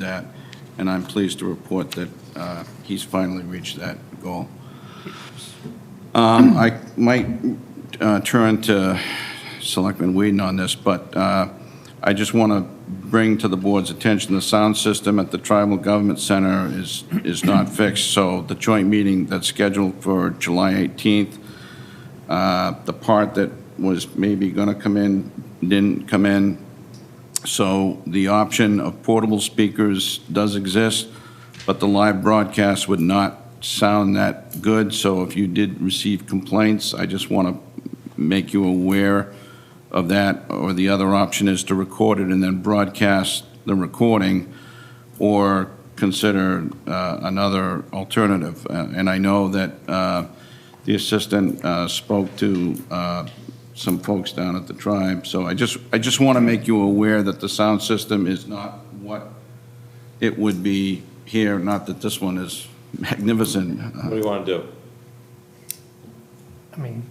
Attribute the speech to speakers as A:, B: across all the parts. A: that, and I'm pleased to report that uh, he's finally reached that goal. Um, I might uh, turn to Selectman Whedon on this, but uh, I just want to bring to the board's attention, the sound system at the Tribal Government Center is, is not fixed, so the joint meeting that's scheduled for July 18th, uh, the part that was maybe going to come in didn't come in. So the option of portable speakers does exist, but the live broadcast would not sound that good. So if you did receive complaints, I just want to make you aware of that. Or the other option is to record it and then broadcast the recording or consider uh, another alternative. Uh, And I know that uh, the assistant uh, spoke to uh, some folks down at the tribe, so I just, I just want to make you aware that the sound system is not what it would be here, not that this one is magnificent.
B: What do you want to do?
C: I mean,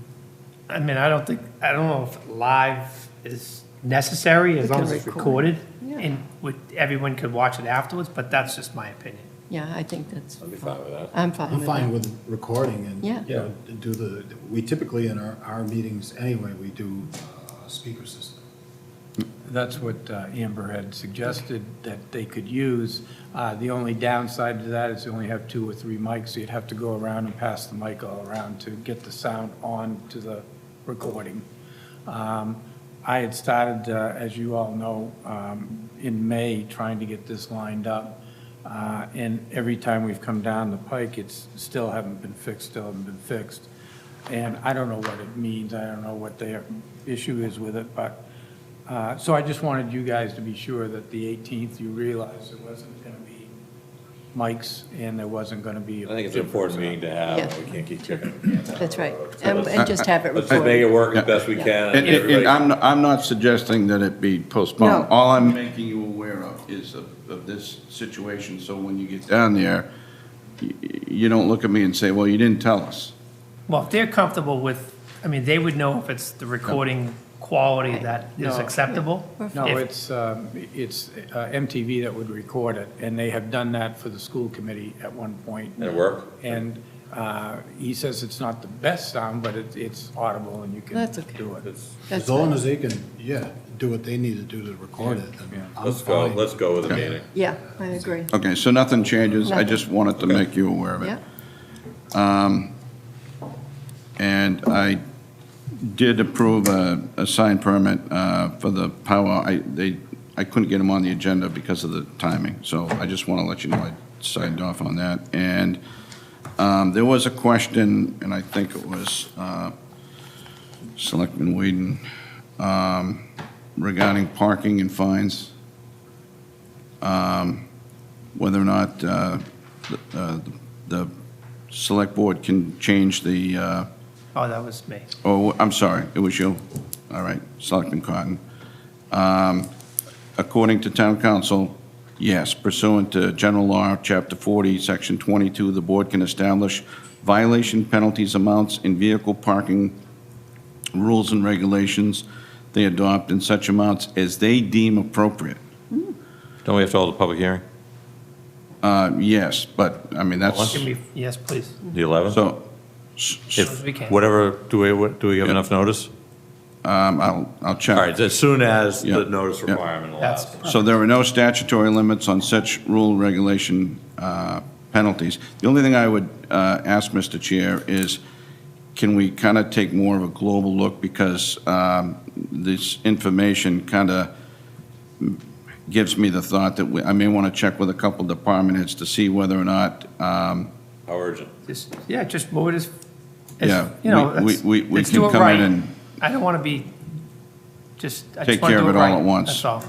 C: I mean, I don't think, I don't know if live is necessary as
D: We can
C: long as it's
D: record.
C: recorded
D: Yeah.
C: and would, everyone could watch it afterwards, but that's just my opinion.
D: Yeah, I think that's,
B: I'd be fine with that.
D: I'm fine
E: I'm
D: with that.
E: fine with recording and,
D: Yeah.
E: you know, do the, we typically in our, our meetings anyway, we do uh, speaker system.
F: That's what uh, Amber had suggested that they could use. Uh, The only downside to that is you only have two or three mics, so you'd have to go around and pass the mic all around to get the sound on to the recording. Um, I had started, uh, as you all know, um, in May, trying to get this lined up. Uh, And every time we've come down the pike, it's still haven't been fixed, still haven't been fixed. And I don't know what it means, I don't know what their issue is with it, but, uh, so I just wanted you guys to be sure that the 18th, you realized there wasn't going to be mics and there wasn't going to be.
B: I think it's an important meeting to have,
D: Yeah.
B: and we can't keep kicking.
D: That's right. And, and just have it
B: Let's just make it
D: recorded.
B: work as best we can.
A: And,
B: and
A: and- and
B: everybody-
A: I'm, I'm not suggesting that it be postponed.
D: No.
A: All I'm making you aware of is of, of this situation, so when you get down there, y- you don't look at me and say, well, you didn't tell us.
C: Well, if they're comfortable with, I mean, they would know if it's the recording quality that is
F: No.
C: acceptable.
F: No,
C: If-
F: it's, um, it's uh, MTV that would record it, and they have done that for the school committee at one point.
B: And it worked?
F: And uh, he says it's not the best sound, but it- it's audible and you can
D: That's okay.
F: do it.
B: Let's-
D: That's
E: As long as they can, yeah, do what they need to do to record it,
F: Yeah.
E: then I'm
B: Let's go,
E: fine.
B: let's go with the meeting.
D: Yeah, I agree.
A: Okay, so nothing changes, I just wanted to
B: Nothing.
A: make you aware of it.
D: Yeah,
A: And I did approve a, a sign permit uh, for the power, I, they, I couldn't get them on the agenda because of the timing, so I just want to let you know I signed off on that. And um, there was a question, and I think it was uh, Selectman Whedon, um, regarding parking and fines, Um, whether or not uh, the- uh, the select board can change the uh,
C: Oh, that was me.
A: Oh, I'm sorry, it was you. All right, Selectman Cotton. Um, According to town council, yes, pursuant to general law, chapter 40, section 22, the board can establish violation penalties amounts in vehicle parking rules and regulations they adopt in such amounts as they deem appropriate.
B: Don't we have to hold a public hearing?
A: Uh, Yes, but, I mean, that's,
C: Can we, yes, please,
B: The 11th?
A: so, s- s-
C: If- we can.
B: Whatever, do we, what- do we have
A: Yeah.
B: enough notice?
A: um, I'll, I'll check.
B: All right, as soon as
A: Yeah.
B: the notice
A: Yeah.
B: requirement
C: that's.
B: allows.
A: So there are no statutory limits on such rule regulation uh, penalties. The only thing I would uh, ask, Mr. Chair, is can we kind of take more of a global look? Because um, this information kind of gives me the thought that we- I may want to check with a couple department heads to see whether or not, um,
B: How urgent?
C: Just, yeah, just move it as,
A: Yeah,
C: as, you know,
A: we-
C: let's,
A: we- we
C: let's
A: can
C: do it
A: come in
C: right.
A: and-
C: I don't want to be, just, I
A: Take
C: just want to
A: care
C: do
A: of
C: it
A: it all
C: right.
A: at once.
C: That's all.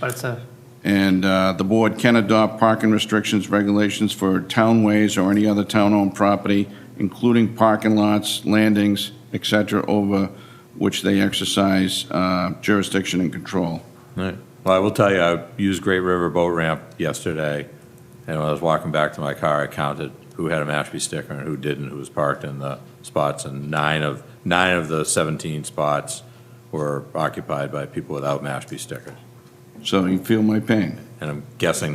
C: But it's a,
A: and uh, the board can adopt parking restrictions, regulations for townways or any other town-owned property, including parking lots, landings, et cetera, over which they exercise uh, jurisdiction and control.
B: All right. Well, I will tell you, I used Great River Boat Ramp yesterday, and when I was walking back to my car, I counted who had a Mashpee sticker and who didn't, who was parked in the spots, and nine of, nine of the 17 spots were occupied by people without Mashpee stickers.
A: So you feel my pain?
B: And I'm guessing